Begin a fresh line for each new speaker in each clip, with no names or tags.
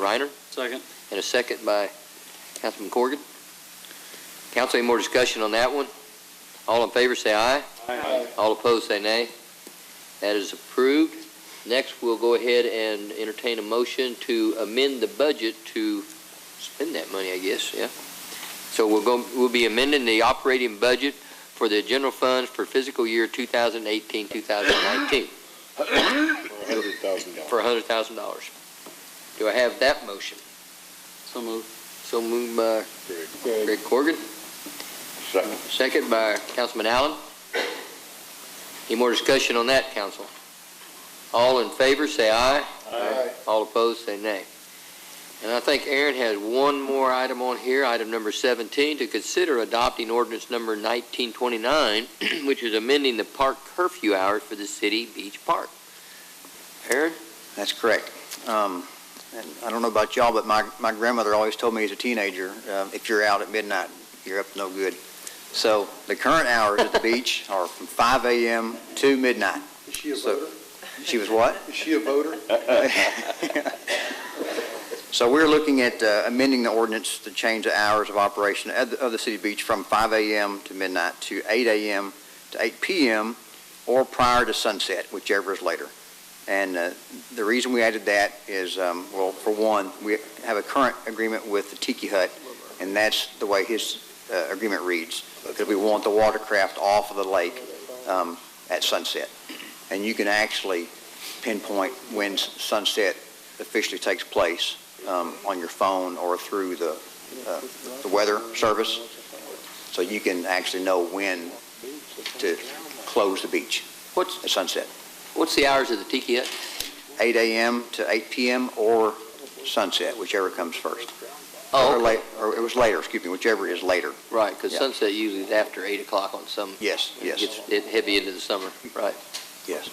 Reiner,
Second.
and a second by Councilman Corrigan. Council, any more discussion on that one? All in favor, say aye.
Aye.
All opposed, say nay. That is approved. Next, we'll go ahead and entertain a motion to amend the budget to spend that money, I guess, yeah. So we'll go, we'll be amending the operating budget for the general funds for fiscal year 2018, 2019
Hundred thousand dollars.
for $100,000. Do I have that motion?
So moved.
So moved by
Good.
Greg Corrigan.
Second.
Second by Councilman Allen. Any more discussion on that, council? All in favor, say aye. All opposed, say nay. And I think Aaron has one more item on here, item number 17, to consider adopting ordinance number 1929, which is amending the park curfew hours for the city beach park. Aaron?
That's correct. Um, and I don't know about y'all, but my, my grandmother always told me as a teenager, uh, if you're out at midnight, you're up to no good. So the current hours at the beach are from 5 a.m. to midnight.
Is she a
So- She was what?
Is she a voter?
So we're looking at uh, amending the ordinance to change the hours of operation of the, of the city beach from 5 a.m. to midnight to 8 a.m. to 8 p.m. or prior to sunset, whichever is later. And uh, the reason we added that is, um, well, for one, we have a current agreement with the Tiki Hut, and that's the way his uh, agreement reads, because we want the watercraft off of the lake um, at sunset. And you can actually pinpoint when s- sunset officially takes place um, on your phone or through the, uh, the weather service, so you can actually know when to close the beach
What's,
at sunset.
what's the hours of the Tiki Hut?
8 a.m. to 8 p.m. or sunset, whichever comes first.
Oh,
Or
okay.
late, or it was later, excuse me, whichever is later.
right, because
Yeah.
sunset usually is after 8 o'clock on some,
Yes, yes,
gets it heavy into the summer, right?
yes.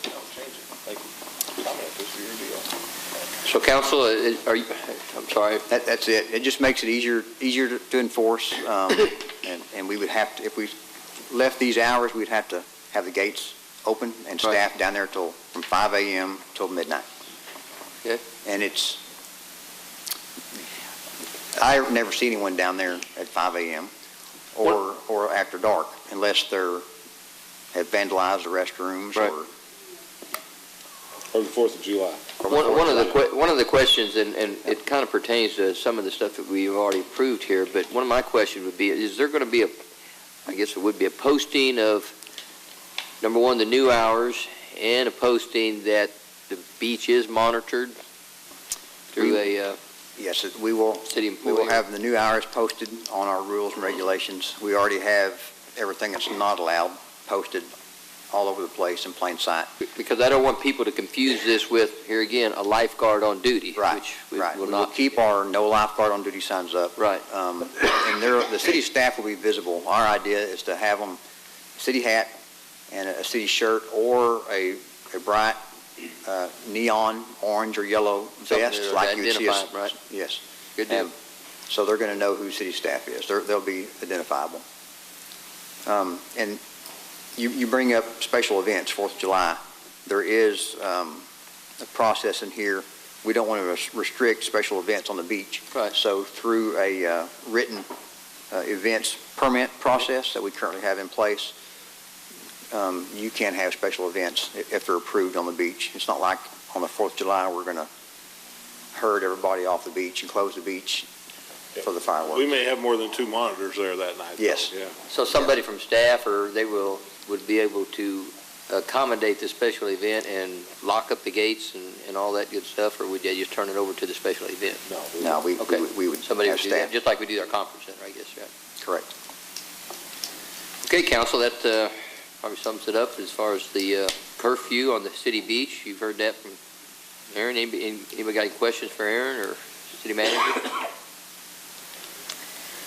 So council, uh, are you, I'm sorry,
That, that's it. It just makes it easier, easier to- to enforce, um, and, and we would have to, if we left these hours, we'd have to have the gates open and
Right.
staff down there till, from 5 a.m. till midnight.
Okay.
And it's, I never see anyone down there at 5 a.m. or, or after dark, unless they're, have vandalized the restrooms
Right.
or.
Or the Fourth of July.
one one of the, que- one of the questions, and, and it kind of pertains to some of the stuff that we've already approved here, but one of my questions would be, is there going to be a, I guess it would be a posting of, number one, the new hours, and a posting that the beach is monitored through a uh,
Yes, it- we will,
city
We
employee?
will have the new hours posted on our rules and regulations. We already have everything that's not allowed posted all over the place in plain sight.
Because I don't want people to confuse this with, here again, a lifeguard on duty.
Right,
which we
right.
will
We will
not-
keep our no lifeguard on duty signs up.
Right,
Um, And there, the city staff will be visible. Our idea is to have them, city hat and a city shirt or a, a bright uh, neon, orange or yellow
Something
vest
to
like you would see. us-
identify 'em, right?
Yes.
good deal.
Um, So they're going to know who city staff is. They're, they'll be identifiable. Um, and you, you bring up special events, Fourth of July. There is, um, a process in here. We don't want to restrict special events on the beach.
Right.
So through a, uh, written, uh, events permit process that we currently have in place, um, you can have special events i- if they're approved on the beach. It's not like on the Fourth of July, we're going to herd everybody off the beach and close the beach for the fireworks.
We may have more than two monitors there that night. though.
Yes.
Yeah.
So somebody from staff or they will, would be able to accommodate the special event and lock up the gates and, and all that good stuff? Or would they just turn it over to the special event?
No, we,
Okay.
we would- we would
Somebody
have
would do that,
staff,
just like we do our conference center, I guess, right?
correct.
Okay, council, that uh, probably sums it up as far as the uh, curfew on the city beach. You've heard that from Aaron. Anybody anybody got any questions for Aaron or city manager?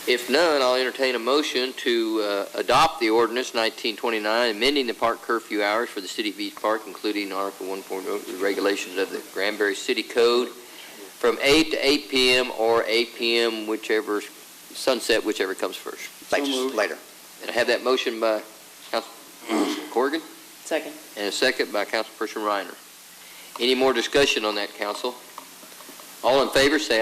If none, I'll entertain a motion to uh, adopt the ordinance 1929, amending the park curfew hours for the city beach park, including Article 1.0, the regulations of the Granbury City Code, from 8 to 8 p.m. or 8 p.m., whichever, sunset, whichever comes first.
Thanks,
moved.
later.
And I have that motion by Councilperson Corrigan
Second.
and a second by Councilperson Reiner. Any more discussion on that, council? All in favor, say